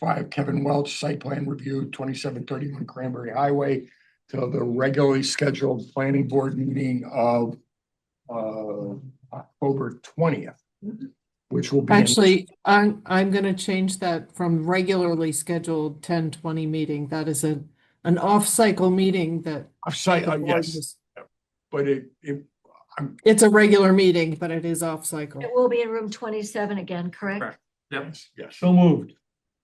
Five Kevin Welch, Site Plan Review, twenty-seven thirty-one Cranberry Highway, to the regularly scheduled planning board meeting of uh, October twentieth, which will be. in- Actually, I'm, I'm gonna change that from regularly scheduled ten twenty meeting. That is a, an off-cycle meeting that. Off-site, the uh, board yes, was- but it, it, It's a regular meeting, but it is off-cycle. It will be in room twenty-seven again, correct? Correct. Yep. yes. So moved.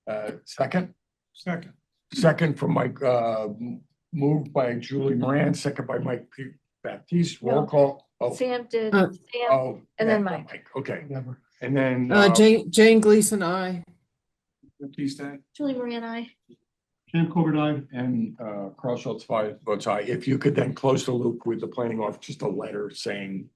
Uh, second? Second. Second from Mike, uh, m- moved by Julie Moran, second by Mike P- Baptiste, roll No. call. Oh, Sam did, Uh, Sam, oh. and then yeah, Mike. Okay, and then. Uh, Jane, Jane Gleason, I. Please stay. Julie Marie and I, Jim Corbett, And, uh, Carl Schultz, five votes aye. If you could then close the loop with the planning office, just a letter saying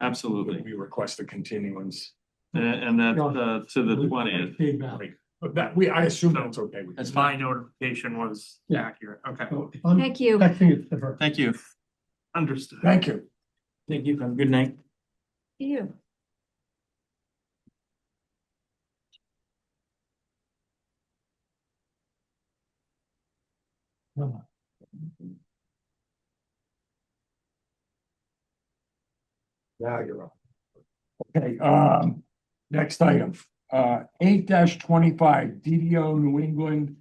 Absolutely. we request a continuance. And, and that's, uh, to the twentieth. Feedback. But that, we, I assume that's okay with you. As my notification was Yeah. accurate, okay, I'm thank you. texting it to her. Thank you. understood. Thank you. Thank you. Have a good night. You. Now you're on. Okay, um, next item, uh, eight twenty-five, DDO New England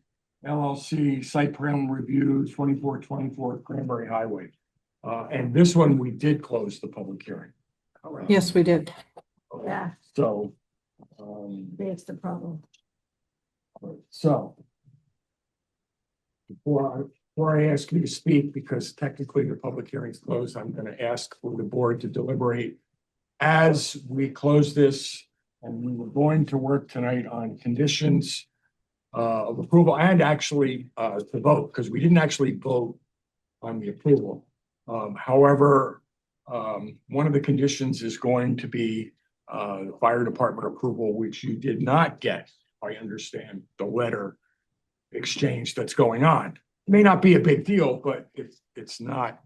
LLC Site Plan Review twenty-four twenty-four Cranberry Highway. Uh, and this one, we did close the public hearing. Yes, we did. Yeah, So, um, that's the problem. so. Before, I- before I ask you to speak, because technically the public hearing is closed, I'm gonna ask for the board to deliberate. As we close this, and we were going to work tonight on conditions. Uh, of approval and actually, uh, to vote, because we didn't actually vote on the approval. Um, however, um, one of the conditions is going to be, uh, fire department approval, which you did not get. I understand the letter exchange that's going on. May not be a big deal, but it's, it's not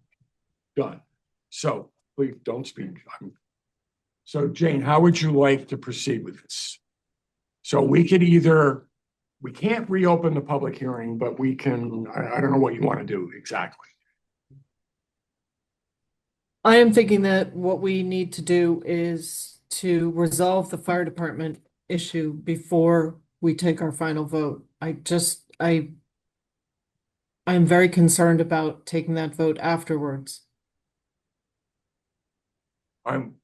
done. So please don't speak. I'm- So Jane, how would you like to proceed with this? So we could either, we can't reopen the public hearing, but we can, I, I don't know what you want to do exactly. I am thinking that what we need to do is to resolve the fire department issue before we take our final vote. I just, I I'm very concerned about taking that vote afterwards. I'm, I'm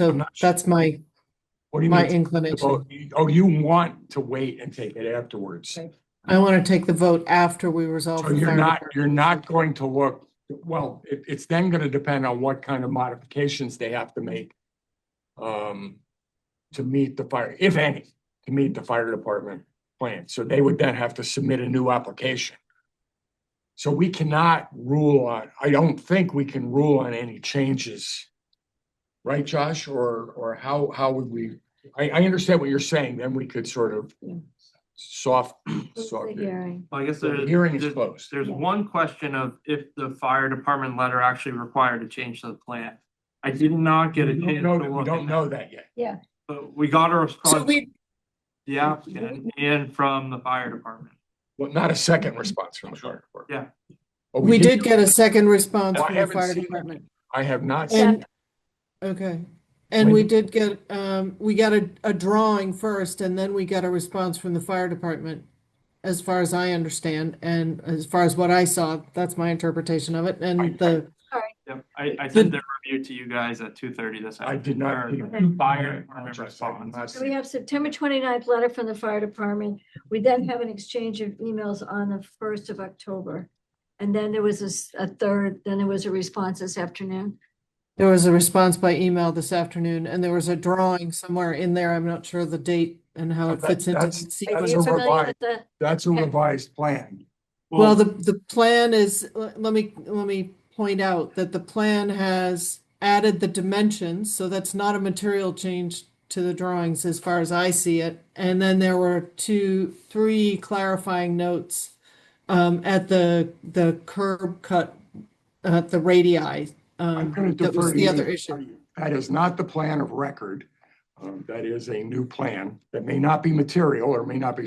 So not sure- that's my, what do you my mean? inclination. Oh, you- Oh, you want to wait and take it afterwards? I want to take the vote after we resolve So the you're fire not, department. you're not going to look, well, it, it's then gonna depend on what kind of modifications they have to make. Um, to meet the fire, if any, to meet the fire department plan, so they would then have to submit a new application. So we cannot rule on, I don't think we can rule on any changes. Right, Josh, or, or how, how would we, I, I understand what you're saying, then we could sort of Yeah. soft, Close soft. the hearing. I guess So the there- hearing is there's, closed. there's Yeah. one question of if the fire department letter actually required a change to the plan. I did not get a We don't chance to know that- We look don't at know that yet. that, But we got a So response, we, the applicant and from the fire department. Well, not a second response from the fire department. Yeah. But we did get a second response Oh, I from the haven't fire seen it. department. I have not, seen- And, okay, and When- we did get, um, we got a, a drawing first and then we got a response from the fire department. As far as I understand, and as far as what I saw, that's my interpretation of it, and the, Yep, I, I sent the review to you guys at two thirty this I afternoon. did not. or- Fire department response. So we have September 29th letter from the fire department. We then have an exchange of emails on the first of October. And then there was a s- a, third, then there was a response this afternoon. there was a response by email this afternoon. And there was a drawing somewhere in there, I'm not sure the date and how it That- fits into the that's- Are That's sequence. you a familiar revised. with the? That's a revised plan. Well, the, the plan is, le- let me, let me point out that the plan has added the dimensions, so that's not a material change to the drawings as far as I see it. And then there were two, three clarifying notes um, at the, the curb cut, uh, the radii. I'm Um, gonna that defer was to the you. other issue. That is not the plan of record. Um, that is a new plan that may not be material or may not be